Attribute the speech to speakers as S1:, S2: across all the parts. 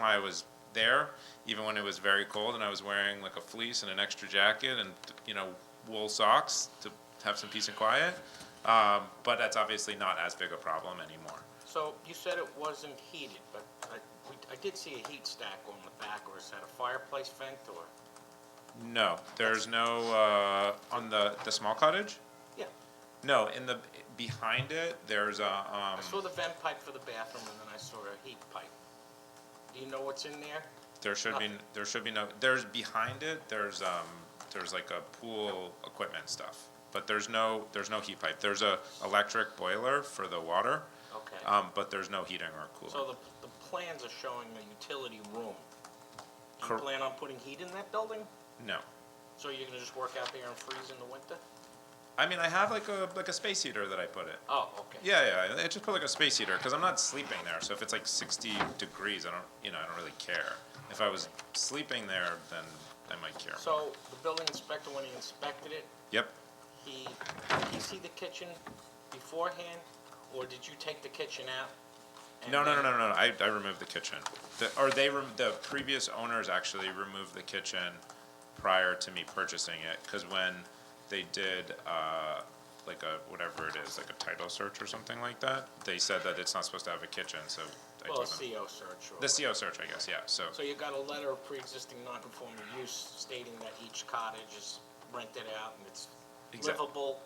S1: why I was there, even when it was very cold and I was wearing like a fleece and an extra jacket and, you know, wool socks to have some peace and quiet. Um, but that's obviously not as big a problem anymore.
S2: So you said it wasn't heated, but I, we, I did see a heat stack on the back, or is that a fireplace vent, or?
S1: No, there's no, uh, on the, the small cottage?
S2: Yeah,
S1: No, in the, behind it, there's a,
S2: I saw
S1: um,
S2: the vent pipe for the bathroom, and then I saw a heat pipe. Do you know what's in there?
S1: there should be, there should be no, there's behind it, there's, um, there's like a pool equipment stuff. But there's no, there's no heat pipe. There's a electric boiler for the water.
S2: Okay.
S1: Um, but there's no heating or
S2: So
S1: cooling.
S2: the, the plans are showing a utility room. Do
S1: Cor-
S2: you plan on putting heat in that building?
S1: No.
S2: So you're gonna just work out there and freeze in the winter?
S1: I mean, I have like a, like a space heater that I put it.
S2: Oh, okay.
S1: Yeah, yeah, I just put like a space heater, cause I'm not sleeping there, so if it's like sixty degrees, I don't, you know, I don't really care. If I was sleeping there, then I might care.
S2: So the building inspector, when he inspected it,
S1: Yep,
S2: he, did he see the kitchen beforehand, or did you take the kitchen out? and
S1: no, no, no,
S2: then-
S1: no, no, no, I, I removed the kitchen. The, or they, rem- the previous owners actually removed the kitchen prior to me purchasing it, cause when they did, uh, like a, whatever it is, like a title search or something like that, they said that it's not supposed to have a kitchen, so I
S2: Well, E
S1: told
S2: a
S1: them.
S2: CO search or.
S1: The E CO search, I guess, yeah, so,
S2: So you got a letter of pre-existing non-conforming use stating that each cottage is rented out and it's
S1: Exact-
S2: livable.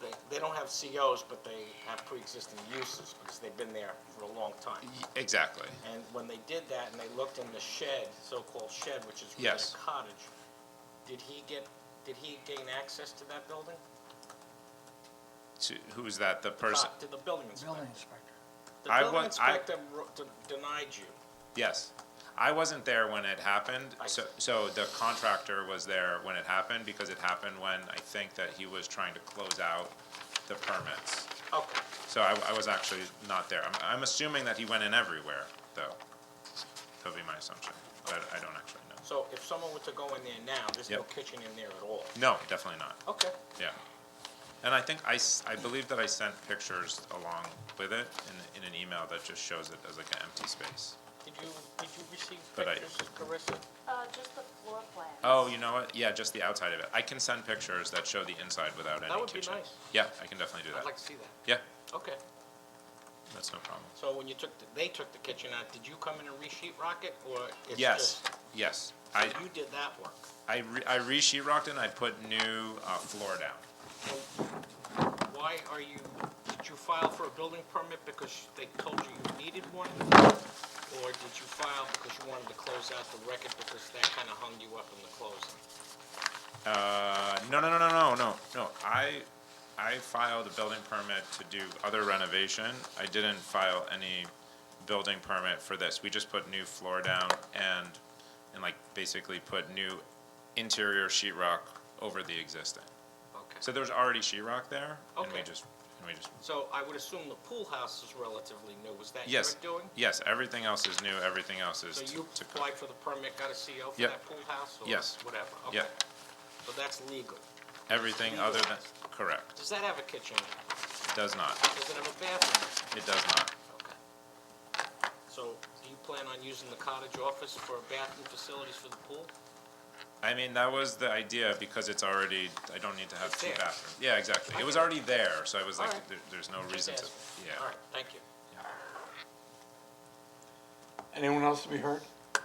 S2: They, they don't have COs, but they have pre-existing uses because they've been there for a long time.
S1: y- exactly.
S2: And when they did that and they looked in the shed, so-called shed, which is really
S1: Yes.
S2: a cottage, did he get, did he gain access to that building?
S1: To, who's that, the person?
S2: Did the building inspector?
S3: Building inspector.
S2: The
S1: I
S2: building
S1: want- I-
S2: inspector ro- de- denied you.
S1: Yes. I wasn't there when it happened,
S2: I
S1: so,
S2: see.
S1: so the contractor was there when it happened, because it happened when I think that he was trying to close out the permits.
S2: Okay.
S1: So I, I was actually not there. I'm, I'm assuming that he went in everywhere, though. That would be my assumption, but I don't actually know.
S2: So if someone were to go in there now, there's no
S1: Yep.
S2: kitchen in there at all?
S1: No, definitely not,
S2: Okay.
S1: yeah. And I think I, s- I believe that I sent pictures along with it in, in an email that just shows it as like an empty space.
S2: Did you, did you receive
S1: But I-
S2: pictures, Carissa?
S4: Uh, just the floor plan.
S1: Oh, you know what? Yeah, just the outside of it. I can send pictures that show the inside without any kitchen.
S2: would be nice.
S1: Yeah, I can definitely do
S2: I'd like
S1: that.
S2: to see that.
S1: Yeah,
S2: Okay.
S1: that's no problem.
S2: So when you took, the they took the kitchen out, did you come in and re-sheet rock it, or it's
S1: Yes,
S2: just?
S1: yes.
S2: so
S1: I,
S2: You did that work.
S1: I re- I re-sheetrocked it and I put new, uh, floor down.
S2: So Why are you, did you file for a building permit because they told you you needed one? Or did you file because you wanted to close out the record because that kind of hung you up in the closing?
S1: Uh, no, no, no, no, no, no, no. I, I filed a building permit to do other renovation. I didn't file any building permit for this. We just put new floor down and, and like basically put new interior sheetrock over the existing.
S2: Okay.
S1: So there's already sheetrock there, and we
S2: Okay.
S1: just, and we just,
S2: So I would assume the pool house is relatively new, was that your
S1: yes.
S2: doing?
S1: Yes, everything else is new, everything else is
S2: So
S1: to,
S2: you
S1: to code.
S2: applied for the permit, got a CO for
S1: Yep.
S2: that pool house, or
S1: Yes.
S2: whatever? Okay.
S1: Yep.
S2: So that's legal.
S1: Everything other than, correct,
S2: Does that have a kitchen?
S1: it does not,
S2: Does it have a bathroom?
S1: it does not.
S2: Okay. So do you plan on using the cottage office for bathroom facilities for the pool?
S1: I mean, that was the idea, because it's already, I don't need to have
S2: It's
S1: two
S2: there.
S1: bathrooms. Yeah, exactly, it was
S2: Okay.
S1: already there, so I was like,
S2: Alright.
S1: there, there's no
S2: Just
S1: reason to,
S2: asking.
S1: yeah.
S2: All right, thank you.
S3: Anyone else to be heard? A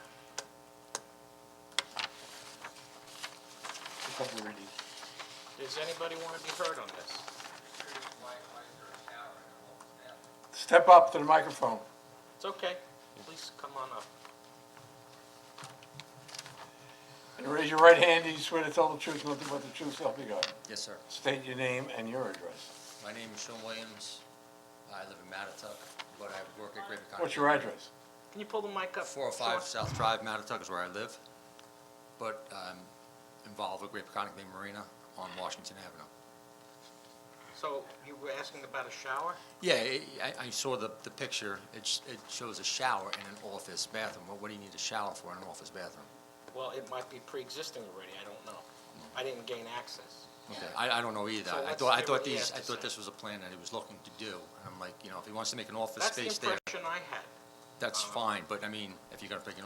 S3: couple of readings.
S2: Does anybody want to be heard on this?
S3: Step up to the microphone.
S2: It's okay. Please come on up.
S3: And raise your right hand, do you swear to tell the truth, nothing but the truth, so help you God?
S5: Yes, sir.
S3: State your name and your address.
S5: My name is Sean Williams. I live in Matituck, but I work at Greater Concord.
S3: What's your address?
S2: Can you pull the mic up?
S5: Four oh five
S2: Sean?
S5: South Drive, Matituck is where I live, but I'm involved with Greater Concord Marina on Washington Avenue.
S2: So you were asking about a shower?
S5: Yeah, I- I, I saw the, the picture. It, sh- it shows a shower in an office bathroom. What, what do you need a shower for in an office bathroom?
S2: Well, it might be pre-existing already, I don't know. I didn't gain access.
S5: Okay, I, I don't know either.
S2: So
S5: I
S2: let's
S5: thought, I
S2: hear what
S5: thought
S2: he has
S5: these,
S2: to
S5: I thought
S2: say.
S5: this was a plan that he was looking to do, and I'm like, you know, if he wants to make an office
S2: That's the
S5: space there,
S2: impression I had.
S5: that's fine, but I mean, if you're gonna make an